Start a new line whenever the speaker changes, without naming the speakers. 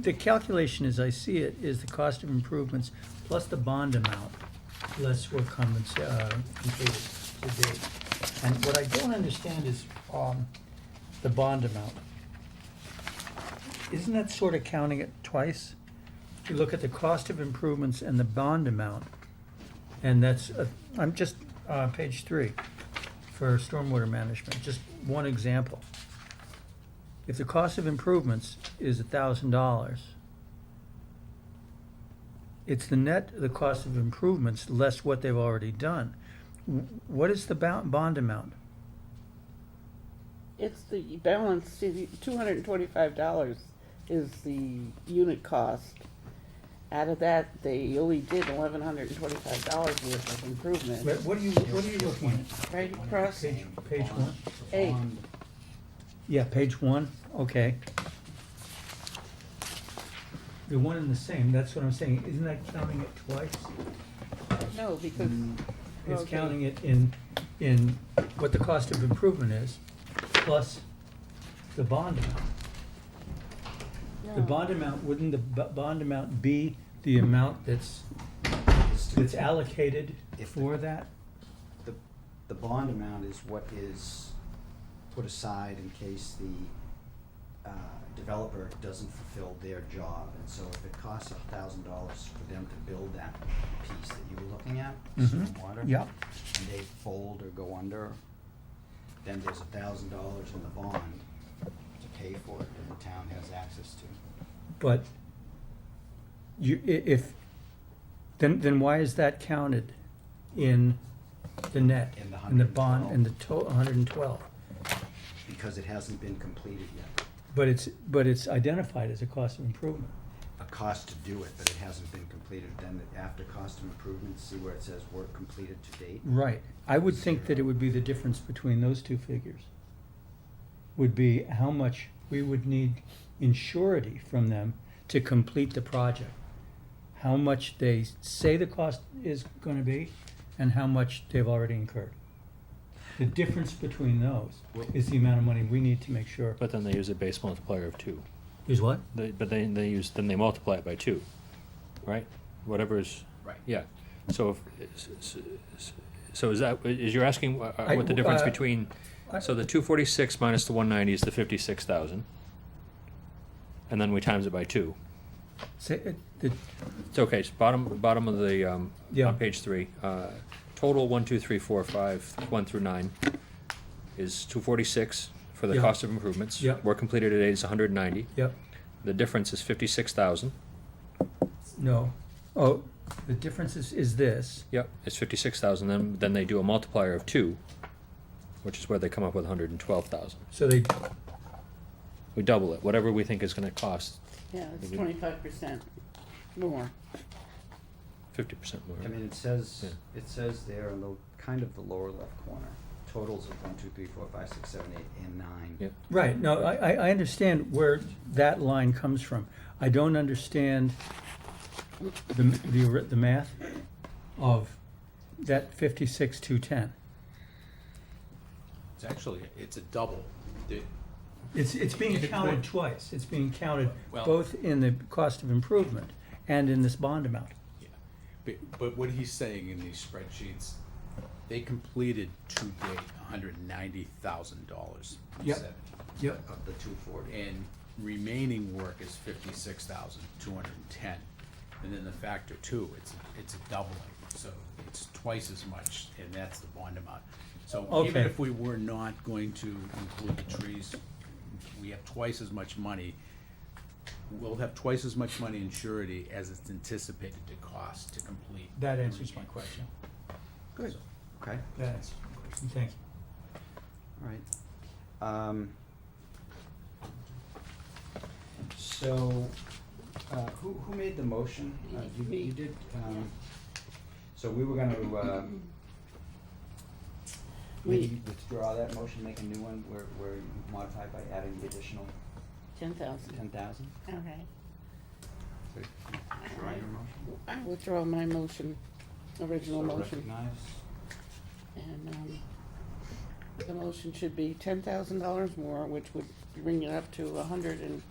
The calculation, as I see it, is the cost of improvements plus the bond amount, less work compens- uh, completed to date. And what I don't understand is, um, the bond amount. Isn't that sort of counting it twice? You look at the cost of improvements and the bond amount, and that's, uh, I'm just, uh, page three, for stormwater management, just one example. If the cost of improvements is a thousand dollars, it's the net, the cost of improvements less what they've already done. W- What is the bo- bond amount?
It's the balance, two hundred and twenty-five dollars is the unit cost. Out of that, they only did eleven hundred and twenty-five dollars worth of
What
improvement,
what are you, what are you looking at?
right across,
Page, page one?
Eight.
Yeah, page one, okay. They're one and the same, that's what I'm saying. Isn't that counting it twice?
no, because.
Um, Mm.
It's
okay.
counting it in, in what the cost of improvement is, plus the bond amount. The
No.
bond amount, wouldn't the b- bond amount be the amount that's, that's allocated for that?
The, the bond amount is what is put aside in case the uh, developer doesn't fulfill their job. And so if it costs a thousand dollars for them to build that piece that you were looking at,
Mhm.
stormwater.
Yep.
And they fold or go under, then there's a thousand dollars in the bond to pay for it that the town has access to.
But you, i- if, then, then why is that counted in the net?
In the
bond,
112.
in the to, hundred and twelve?
Because it hasn't been completed yet.
But it's, but it's identified as a cost of improvement.
a cost to do it, but it hasn't been completed, then after cost of improvement, see where it says work completed to date?
Right. I would think that it would be the difference between those two figures. Would be how much we would need in surety from them to complete the project. How much they say the cost is gonna be and how much they've already incurred. The difference between those is the amount of money we need to make sure.
But then they use a base multiplier of two.
Is what?
They, but they, they use, then they multiply it by two, right? Whatever is,
Right.
yeah. So if, so is that, is you're asking uh, uh, what the difference
I- uh,
between, so the two forty-six minus the one ninety is the fifty-six thousand. And then we times it by two.
Say, it- the,
It's okay, it's bottom, bottom of the, um,
Yeah.
on page three. Uh, Total one, two, three, four, five, one through nine is two forty-six for the
Yeah.
cost of improvements.
Yeah.
Work completed today is hundred and ninety.
yep,
The difference is fifty-six thousand.
no. Oh, the difference is, is this.
Yep, it's fifty-six thousand. Then then they do a multiplier of two, which is where they come up with one hundred and twelve thousand.
So they,
We double it, whatever we think is going to cost,
Yeah, it's twenty-five percent more.
fifty percent more.
I mean, it says,
Yeah.
it says there in the, kind of the lower left corner, totals of one, two, three, four, five, six, seven, eight, and nine.
Yep.
Right, no, I, I- I understand where that line comes from. I don't understand the, the, ri- the math of that fifty-six, two, ten.
It's actually, it's a double. The-
It's, it's being
It's
counted
good.
twice. It's being counted
Well-
both in the cost of improvement and in this bond amount.
yeah. But, but what he's saying in these spreadsheets, they completed to date hundred and ninety thousand dollars.
Yep. Yep.
Of the two forty.
And remaining work is fifty-six thousand, two hundred and ten. And then the factor two, it's, it's a doubling, so it's twice as much, and that's the bond amount. So even
Okay.
if we were not going to include the trees, we have twice as much money. We'll have twice as much money in surety as it's anticipated to cost to complete.
That answers my question.
Good. Okay,
That answers my question, thank you.
all right. Um, So, uh, who, who made the motion? Uh, you-
Me.
You did, um, so we were gonna, uh,
We,
maybe withdraw that motion, make a new one, where, where you modify by adding the additional
ten thousand.
ten thousand?
Okay.
Withdraw your motion?
I withdraw my motion, original
So
motion,
recognize,
and, um, the motion should be ten thousand dollars more, which would bring it up to a hundred and